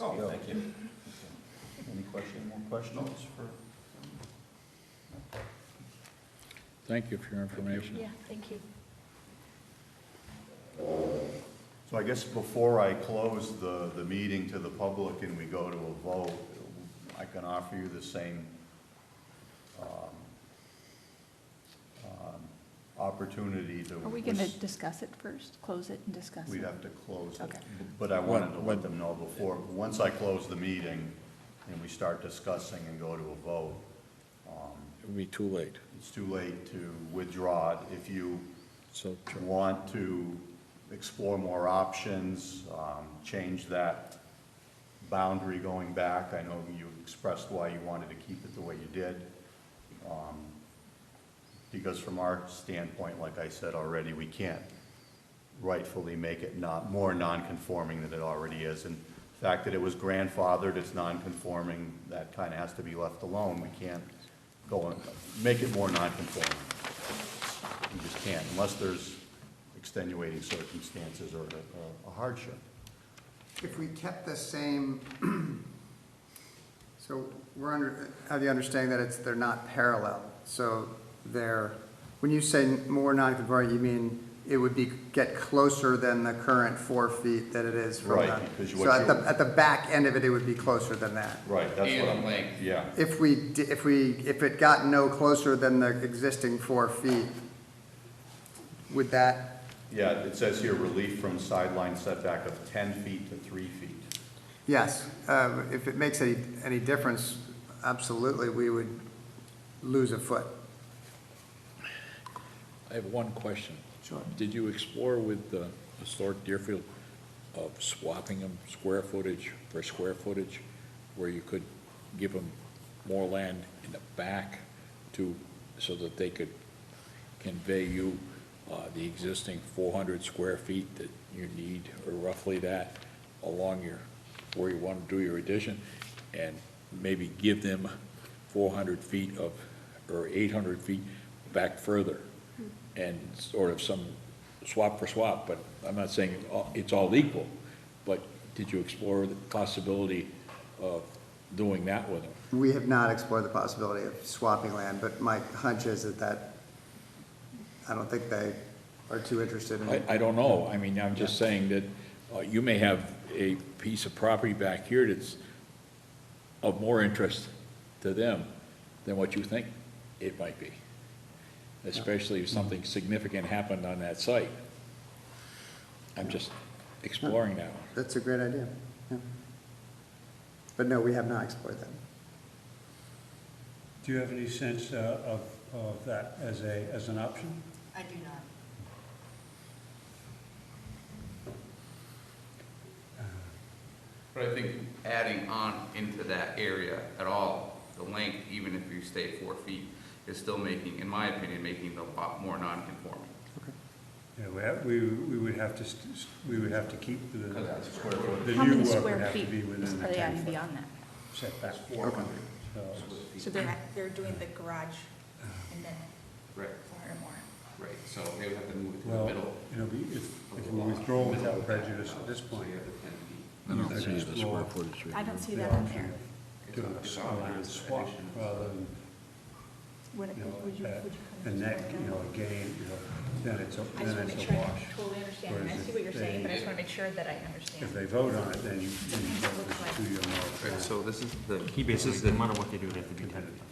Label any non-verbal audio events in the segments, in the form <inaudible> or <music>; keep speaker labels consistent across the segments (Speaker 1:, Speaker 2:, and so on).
Speaker 1: Oh,
Speaker 2: Go.
Speaker 1: thank you.
Speaker 2: Any question, more questions for?
Speaker 3: Thank you for your information.
Speaker 4: Yeah, thank you.
Speaker 2: So I guess before I close the, the meeting to the public and we go to a vote, I can offer you the same um, um, opportunity to.
Speaker 4: Are we going to
Speaker 2: was-
Speaker 4: discuss it first, close it and discuss it?
Speaker 2: We'd have to close it,
Speaker 4: Okay.
Speaker 2: but I wanted to
Speaker 3: When-
Speaker 2: let them know before, once I close the meeting and we start discussing and go to a vote,
Speaker 3: It would be too late,
Speaker 2: it's too late to withdraw it. If you
Speaker 3: so,
Speaker 2: want to explore more options, um, change that boundary going back, I know you expressed why you wanted to keep it the way you did. Um, Because from our standpoint, like I said already, we can't rightfully make it not, more non-conforming than it already is. And the fact that it was grandfathered, it's non-conforming, that kind of has to be left alone. We can't go and make it more non-conforming. You just can't, unless there's extenuating circumstances or a- a hardship.
Speaker 5: If we kept the same, <clears throat> so we're under, have the understanding that it's, they're not parallel. So they're, when you say more non-conforming, you mean it would be, get closer than the current four feet that it is from the.
Speaker 2: Right, because what
Speaker 5: So at
Speaker 2: you-
Speaker 5: the, at the back end of it, it would be closer than that.
Speaker 2: Right, that's what
Speaker 6: And
Speaker 2: I'm.
Speaker 6: length.
Speaker 2: Yeah,
Speaker 5: If we, di- if we, if it got no closer than the existing four feet, would that,
Speaker 2: yeah, it says here relief from sideline setback of ten feet to three feet.
Speaker 5: yes, uh, if it makes any, any difference, absolutely, we would lose a foot.
Speaker 3: I have one question.
Speaker 5: Sure.
Speaker 3: Did you explore with the historic Deerfield of swapping them square footage for square footage, where you could give them more land in the back to, so that they could convey you uh, the existing four hundred square feet that you need, or roughly that, along your, where you want to do your addition, and maybe give them four hundred feet of, or eight hundred feet back further, and sort of some swap for swap, but I'm not saying it all- it's all equal, but did you explore the possibility of doing that with them?
Speaker 5: We have not explored the possibility of swapping land, but my hunch is that that, I don't think they are too interested in
Speaker 3: I,
Speaker 5: it.
Speaker 3: I don't know, I mean, I'm just saying that uh, you may have a piece of property back here that's of more interest to them than what you think it might be, especially if something significant happened on that site. I'm just exploring that one.
Speaker 5: That's a great idea, yeah. But no, we have not explored that.
Speaker 7: Do you have any sense uh, of, of that as a, as an option?
Speaker 8: I do not.
Speaker 6: But I think adding on into that area at all, the length, even if you stay at four feet, is still making, in my opinion, making the lot more non-conforming.
Speaker 7: You know, we have- we, we would have to, st- st- we would have to keep the, the
Speaker 4: How
Speaker 7: new
Speaker 4: many
Speaker 7: work uh, would
Speaker 4: square
Speaker 7: have to
Speaker 4: feet
Speaker 7: be within
Speaker 4: is-
Speaker 7: the
Speaker 4: are they adding
Speaker 7: 10-foot
Speaker 4: beyond that?
Speaker 7: setback.
Speaker 5: Okay.
Speaker 7: So,
Speaker 8: So they're, they're doing the garage and then
Speaker 6: Right,
Speaker 8: four or more.
Speaker 6: right, so they would have to move it to the
Speaker 7: Well,
Speaker 6: middle.
Speaker 7: you know, we- if,
Speaker 6: of
Speaker 7: if
Speaker 6: the
Speaker 7: we
Speaker 6: lot,
Speaker 7: withdraw
Speaker 6: middle
Speaker 7: without
Speaker 6: of that
Speaker 7: prejudice
Speaker 6: house,
Speaker 7: at this
Speaker 6: so
Speaker 7: point,
Speaker 6: you have the 10 feet.
Speaker 7: I don't see the square
Speaker 3: footage.
Speaker 8: I don't see
Speaker 7: the
Speaker 8: that on
Speaker 7: option
Speaker 8: there.
Speaker 7: of doing a swap, a swap rather than,
Speaker 8: Would,
Speaker 7: you
Speaker 8: would you,
Speaker 7: know, uh,
Speaker 8: would you
Speaker 7: a- a
Speaker 8: come?
Speaker 7: neck, you know, a gain, you know, then it's, a-
Speaker 8: I just
Speaker 7: then
Speaker 8: want to
Speaker 7: it's
Speaker 8: make
Speaker 7: a
Speaker 8: sure I
Speaker 7: wash.
Speaker 8: totally understand, and I
Speaker 7: Whereas
Speaker 8: see what you're
Speaker 7: if
Speaker 8: saying, but I just
Speaker 7: they-
Speaker 8: want to make sure that I
Speaker 7: If
Speaker 8: understand.
Speaker 7: they vote on it, then you, then you
Speaker 8: Sometimes it
Speaker 7: go
Speaker 8: looks like-
Speaker 7: to your
Speaker 6: Right,
Speaker 7: more.
Speaker 6: so this is the.
Speaker 9: He
Speaker 6: this
Speaker 9: basically,
Speaker 6: is
Speaker 9: no
Speaker 6: the-
Speaker 9: matter what they do, they have to be ten feet off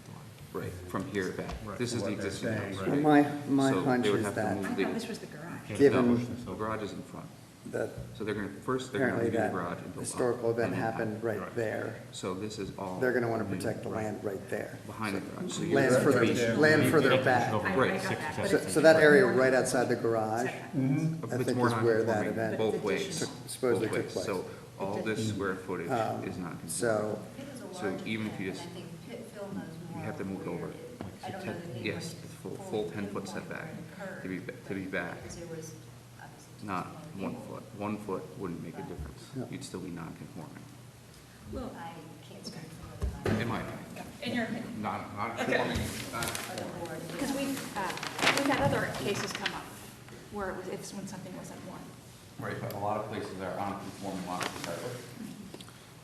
Speaker 9: the line.
Speaker 6: Right, from here back, this is the
Speaker 7: What they're
Speaker 6: existing
Speaker 7: saying.
Speaker 6: house.
Speaker 5: Well,
Speaker 6: right?
Speaker 5: My, my
Speaker 6: So they
Speaker 5: hunch
Speaker 6: would
Speaker 5: is
Speaker 6: have to
Speaker 5: that,
Speaker 4: I
Speaker 6: move
Speaker 4: thought
Speaker 6: the-
Speaker 4: this was the garage.
Speaker 5: given
Speaker 6: The garage is in front,
Speaker 5: that
Speaker 6: so they're gonna, first, they're gonna
Speaker 5: apparently
Speaker 6: do the
Speaker 5: that
Speaker 6: garage and build up.
Speaker 5: historical event
Speaker 6: and then-
Speaker 5: happened right there,
Speaker 6: So this is all.
Speaker 5: they're gonna wanna protect the land right there.
Speaker 6: Behind the garage. So you're
Speaker 5: Land
Speaker 6: right
Speaker 5: further,
Speaker 6: there.
Speaker 5: land further
Speaker 9: Eight
Speaker 5: back.
Speaker 9: inches over
Speaker 4: I- I
Speaker 6: Right,
Speaker 4: got
Speaker 9: six
Speaker 4: that,
Speaker 9: or
Speaker 4: but
Speaker 9: seven.
Speaker 5: So,
Speaker 4: it's-
Speaker 5: so that area right outside the garage, Mm-hmm. I
Speaker 6: It's
Speaker 5: think
Speaker 6: more
Speaker 5: is where that
Speaker 6: non-conforming
Speaker 5: event
Speaker 6: Both ways.
Speaker 5: took- supposedly
Speaker 6: both
Speaker 5: took
Speaker 6: ways.
Speaker 5: place.
Speaker 6: So all this square footage
Speaker 5: um,
Speaker 6: is not conforming.
Speaker 5: so
Speaker 8: Pitt is a
Speaker 6: So
Speaker 8: large
Speaker 6: even if you
Speaker 8: plant,
Speaker 6: just-
Speaker 8: and I think Pitt Phil knows
Speaker 6: You
Speaker 8: more
Speaker 6: have to move it
Speaker 8: where
Speaker 6: over.
Speaker 8: it is. I don't know the neighborhood
Speaker 6: Yes, it's full, full ten foot
Speaker 8: pinpoint
Speaker 6: setback
Speaker 8: where it
Speaker 6: to be,
Speaker 8: occurred,
Speaker 6: to be back,
Speaker 8: Because there was obviously just
Speaker 6: not one
Speaker 8: people.
Speaker 6: foot. One foot wouldn't make a difference.
Speaker 5: Yeah.
Speaker 6: You'd still be non-conforming,
Speaker 4: Well,
Speaker 8: I can't speak for the.
Speaker 6: in my opinion.
Speaker 4: in your opinion.
Speaker 6: Not, not conforming, uh, not conforming.
Speaker 4: Because we, uh, we've had other cases come up where it was, it's when something wasn't one.
Speaker 6: Right, but a lot of places are on conforming lots to start with.